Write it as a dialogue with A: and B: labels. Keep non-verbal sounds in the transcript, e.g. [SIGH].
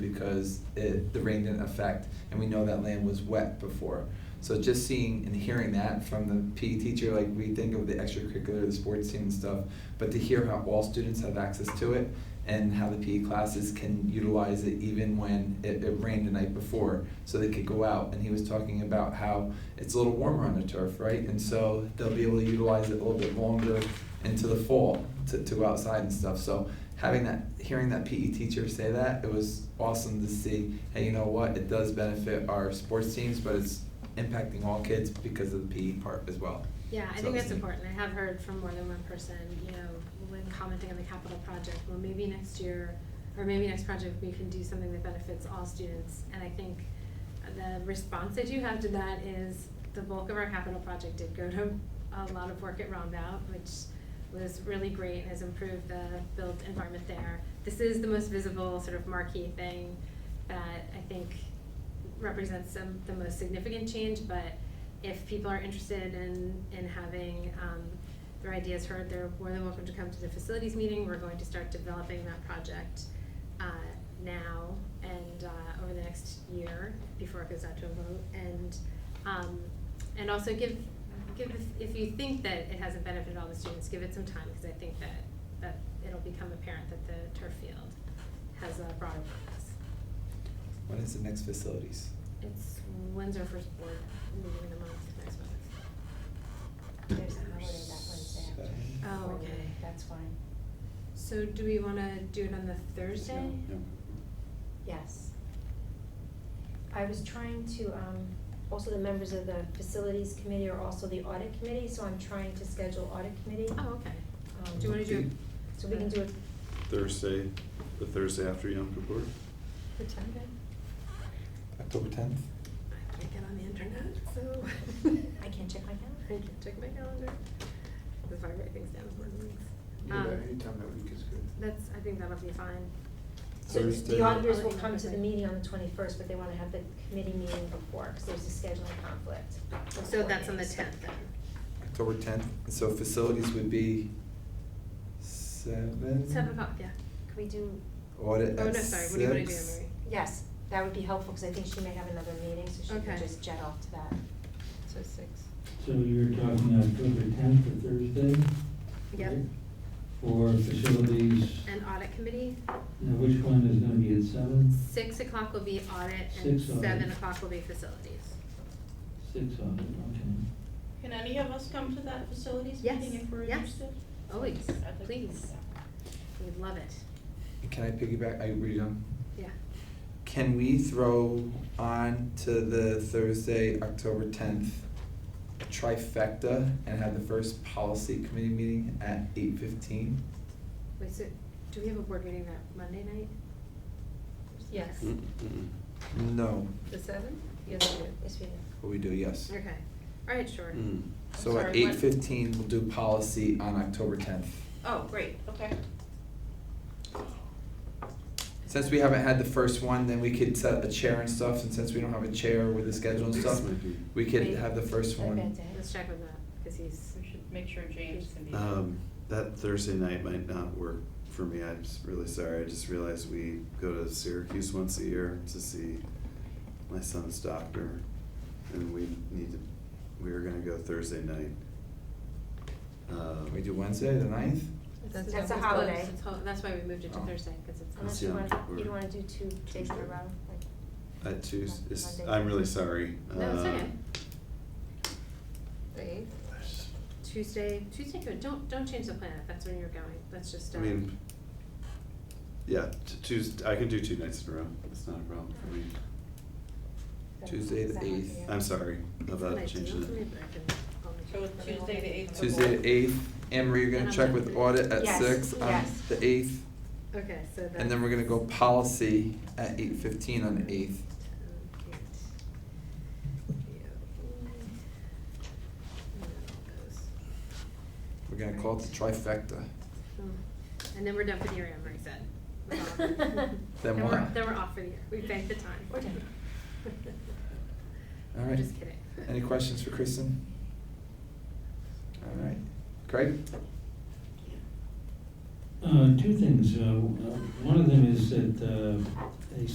A: because it, the rain didn't affect, and we know that land was wet before. So just seeing and hearing that from the PE teacher, like we think of the extracurricular, the sports team and stuff, but to hear how all students have access to it and how the PE classes can utilize it even when it, it rained the night before, so they could go out. And he was talking about how it's a little warmer on the turf, right? And so they'll be able to utilize it a little bit longer into the fall to, to go outside and stuff. So having that, hearing that PE teacher say that, it was awesome to see. Hey, you know what? It does benefit our sports teams, but it's impacting all kids because of the PE part as well.
B: Yeah, I
A: So
B: think
A: it's
B: that's
A: neat.
B: important. I have heard from more than one person, you know, when commenting on the capital project, well, maybe next year, or maybe next project, we can do something that benefits all students. And I think the response that you have to that is the bulk of our capital project did go to a lot of work at Rombout, which was really great and has improved the built environment there. This is the most visible sort of marquee thing that I think represents some, the most significant change, but if people are interested in, in having, um, their ideas heard, they're more than welcome to come to the facilities meeting, we're going to start developing that project, uh, now and, uh, over the next year, before it goes out to a vote, and, um, and also give, give, if- if you think that it hasn't benefited all the students, give it some time, cause I think that, that it'll become apparent that the turf field has a broader purpose.
A: When is the next facilities?
B: It's when's our first board meeting in the month, next month?
C: There's a holiday that Wednesday after.
A: Seven.
B: Oh,
C: Or,
B: okay.
C: That's fine.
B: So do we wanna do it on the Thursday?
C: Yes. I was trying to, um, also the members of the facilities committee are also the audit committee, so I'm trying to schedule audit committee.
B: Oh, okay.
C: um,
B: Do you wanna do it?
C: So we can do it.
D: Thursday, the Thursday after Yom Kippur?
C: What time, Ben?
A: October tenth?
B: I can't get on the internet, so.
C: I can't check
B: [LAUGHS]
C: my
B: I
C: calendar.
B: can't check my calendar. That's why I write things down for meetings.
E: Yeah,
B: Um,
E: anytime that week is good.
B: That's, I think that'll be fine.
C: So
D: Thursday.
C: the auditors
B: Oh,
C: will come to the meeting on the twenty-first, but they wanna have the committee meeting before, because there's a scheduling conflict. with
B: So
C: board
B: that's on the
C: meetings.
B: tenth then.
A: October tenth, so facilities would be seven?
B: Seven o'clock, yeah.
C: Could we do,
A: Audit
B: Oh,
A: at
B: no, sorry, what do you wanna do,
A: six.
B: Emery?
C: yes, that would be helpful, because I think she may have another meeting, so she
B: Okay.
C: can just jet off to that.
B: So six.
F: So you're talking October tenth or Thursday?
B: Yep.
F: right? For facilities,
B: And audit committee,
F: now which one is gonna be at seven?
B: six o'clock will be audit and
F: Six audit.
B: seven o'clock will be facilities.
F: Six on it,
G: Can any of us come to that facilities
B: Yes,
G: meeting if we're
B: yes.
G: interested?
B: Always,
G: I'd like to do
B: please.
G: that.
B: We'd love it.
A: Can I piggyback, I read on?
B: Yeah.
A: Can we throw on to the Thursday, October tenth trifecta and have the first policy committee meeting at eight fifteen?
B: Wait, so, do we have a board meeting that Monday night?
C: Yes.
D: Mm-hmm.
A: No,
B: The seventh? Yes, we do.
C: Yes, we do.
A: but we do, yes.
B: Okay, all right, sure.
A: Hmm.
D: Mm.
A: So at
G: sorry,
A: eight
G: what?
A: fifteen, we'll do policy on October tenth.
G: Oh, great, okay.
A: Since we haven't had the first one, then we could set a chair and stuff, and since we don't have a chair with the schedule and stuff,
D: This might be-
A: we could
B: Wait.
A: have the first
C: Like that
A: one.
C: day.
B: Let's check with that, because he's,
G: We should make sure James can be. there.
D: Um, that Thursday night might not work for me, I'm s- really sorry, I just realized we go to Syracuse once a year to see my son's doctor, and we need to, we were gonna go Thursday night. Uh,
A: Can we do Wednesday, the ninth?
C: That's That's a always holiday. closed.
B: It's hol- That's why we moved it to
A: Oh.
B: Thursday, because it's.
C: Unless
D: That's
C: you
D: young.
C: want, you
D: We're-
C: don't wanna do two days in a
D: Tuesday.
C: row, like,
D: At Tues, it's-
C: Monday.
D: I'm really sorry.
B: No, it's
D: Uh,
B: okay.
D: um,
B: Tuesday, Tuesday, good. don't, don't change the plan if that's where you're going, that's just,
D: I
B: um,
D: mean, yeah, t- Tues, I can do two nights in a row, it's not a problem for me.
A: Tuesday the
C: Is that what
A: 8th.
C: you-
D: I'm sorry
B: it's an
D: about
B: ideal
D: changing
B: for me,
D: it.
B: but I can only
G: So
B: check.
G: Tuesday the eighth.
A: Tuesday the eighth, Anne Marie, you're
B: And
A: gonna
B: I'm
A: check
B: done.
A: with audit at
C: Yes,
A: six on
C: yes.
A: the eighth,
B: Okay, so that's.
A: and then we're gonna go policy at eight fifteen on the eighth.
B: Okay. And then all goes.
A: We're gonna call it the trifecta.
B: Hmm. And then we're done for the year, Emery said. We're off.
A: [LAUGHS] Then
B: we're-
A: what?
B: Then we're off for the year. We banked the time. [LAUGHS]
C: We're done.
A: All right.
B: Just kidding.
A: Any questions for Kristen? All right, Craig?
F: okay. Uh, two things, uh, w- uh, one of them is that, uh, a